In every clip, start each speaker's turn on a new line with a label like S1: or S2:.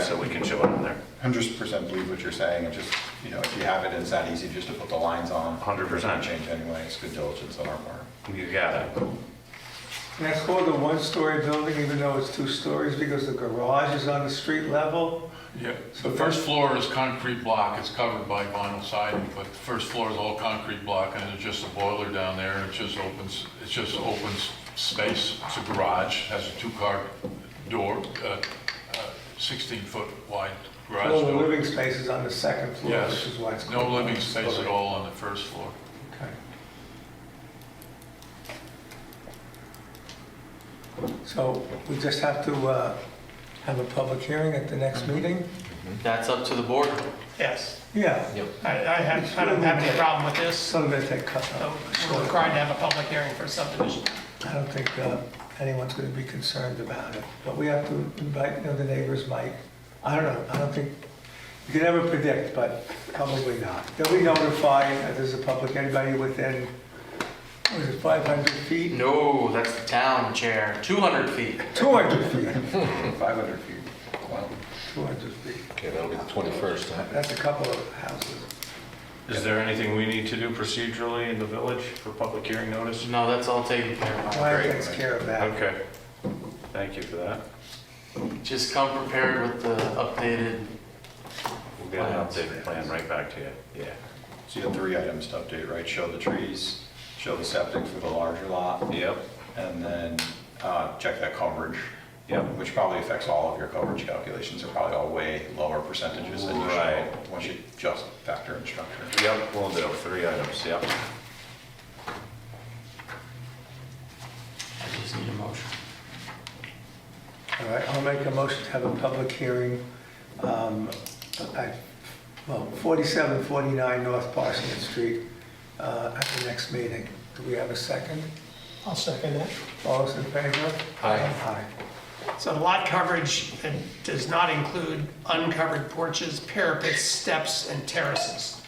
S1: so we can show it on there.
S2: Hundred percent believe what you're saying, and just, you know, if you have it, it's that easy just to put the lines on.
S1: 100%.
S2: Change anyway, it's good diligence on our part.
S1: You got it.
S3: And it's called a one-story building, even though it's two stories, because the garage is on the street level.
S4: Yeah, the first floor is concrete block, it's covered by vinyl siding, but the first floor is all concrete block, and there's just a boiler down there, and it just opens, it's just open s- space, it's a garage, has a two-car door, 16-foot wide garage
S3: All the
S4: door.
S3: living space is on the second floor, which
S4: Yes,
S3: is why it's called. a
S4: no living space at
S3: one-story.
S4: all on the first floor.
S3: Okay. So we just have to uh, have a public hearing at the next
S4: Mm-hmm.
S3: meeting?
S5: That's up to the board.
S6: Yes,
S3: Yeah,
S5: Yep.
S6: I, I have, I don't have any problem with this.
S3: so we're gonna take cut.
S6: So We're required to have a public hearing for subdivision.
S3: I don't think uh, anyone's going to be concerned about it, but we have to invite, you know, the neighbors might, I don't know, I don't think, you can never predict, but probably not. They'll be notified that there's a public, anybody within, what is it, 500 feet?
S5: No, that's the town chair. 200 feet.
S3: 200 feet,
S2: Five hundred feet, wow.
S3: 200 feet.
S7: Okay, that'll be the 21st, huh?
S3: That's a couple of houses.
S1: Is there anything we need to do procedurally in the village for public hearing notice?
S5: No, that's all taken care of.
S3: Ryan takes care of that.
S1: Okay. Thank you for that.
S5: Just come prepared with the updated,
S1: We'll get an updated plan right back to you. Yeah.
S2: So you have three items to update, right? Show the trees, show the septic for the larger lot,
S1: Yep,
S2: and then uh, check that coverage.
S1: Yep.
S2: Which probably affects all of your coverage calculations, are probably all way lower percentages than you show,
S1: Right.
S2: once you just factor in structure.
S1: yep, we'll do, three items, yep.
S5: I just need a motion.
S3: All right, I'll make a motion to have a public hearing um, at, well, 4749 North Parsons Street uh, at the next meeting. Do we have a second?
S6: I'll second that.
S3: All those in favor? Aye.
S6: So the lot coverage uh, does not include uncovered porches, parapets, steps, and terraces,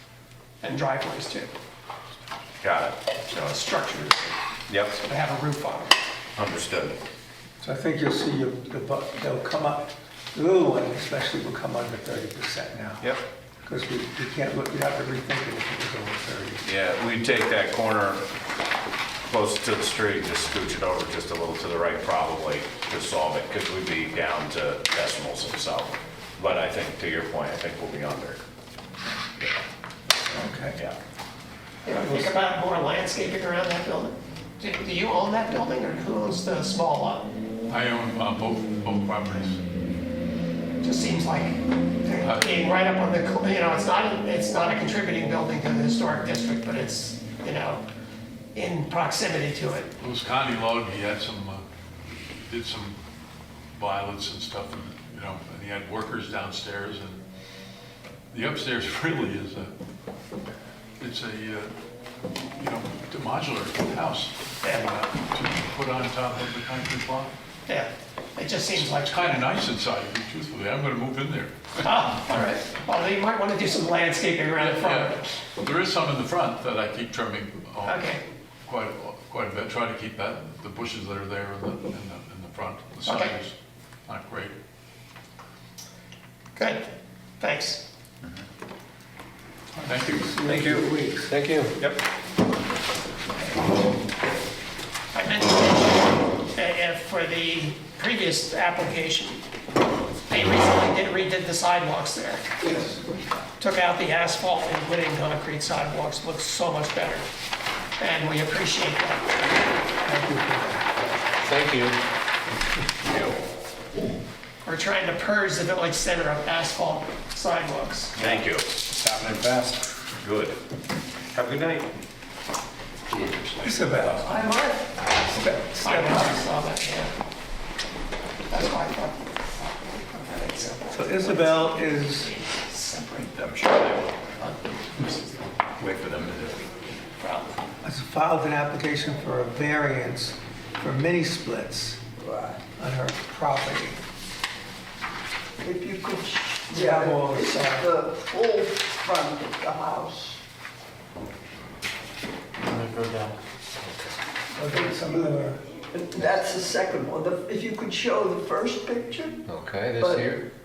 S6: and driveways too.
S1: Got it.
S6: So it's structures
S1: Yep,
S6: that have a roof on them.
S1: understood.
S3: So I think you'll see your- the, bu- they'll come up, the little one especially will come under 30% now.
S1: Yep.
S3: Because we we can't, look. you'd have to rethink it if it was over 30.
S1: Yeah, we take that corner close to the street, just scooch it over just a little to the right probably to solve it, because we'd be down to decimals itself. But I think, to your point, I think we'll be under.
S3: Okay.
S1: Yeah.
S6: Think about more landscaping around that building. Do do you own that building, or who owns the small lot?
S4: I own uh, both, both properties.
S6: Just seems like they're being right up on the, cl- you know, it's not, it's not a contributing building to the historic district, but it's, you know, in proximity to it.
S4: It was Connie Logue, he had some, uh, did some violence and stuff, and, you know, and he had workers downstairs, and the upstairs really is a, it's a, uh, you know, a modular house, and, uh, to put on top of the concrete block.
S6: Yeah, it just seems like,
S4: It's kind of nice inside, to be truthfully, I'm gonna move in there.
S6: ah, all right. Well, you might want to do some landscaping around the front.
S4: Yeah, There is some in the front that I keep trimming. um,
S6: Okay.
S4: Quite, quite a bit, try to keep that, the bushes that are there in the, in the, in the front, the
S6: Okay.
S4: side is not great.
S6: Good, thanks.
S4: Thank you.
S3: Thank you. in a few weeks.
S7: Thank you.
S6: I mentioned, uh, uh, for the previous application, they recently did, redid the sidewalks there. Took out the asphalt and put in concrete sidewalks, looks so much better, and we appreciate that.
S7: Thank you.
S6: We're trying to purge the village center of asphalt sidewalks.
S1: Thank you.
S2: It's happening fast.
S1: Good. Have a good night.
S3: It's about,
S6: I might. I might, saw that, yeah. That's why I thought.
S3: so Isabel is
S2: I'm sure they will. Wait for them to do it.
S3: has filed an application for a variance for mini splits on her property.
S8: If you could,
S3: Yeah,
S8: yeah,
S3: well,
S8: it's
S3: sorry.
S8: the full front of the house.
S5: I'm gonna go down.
S3: Okay, some of them are,
S8: That's the second one. The- If you could show the first picture,
S7: Okay, this
S8: but
S7: here?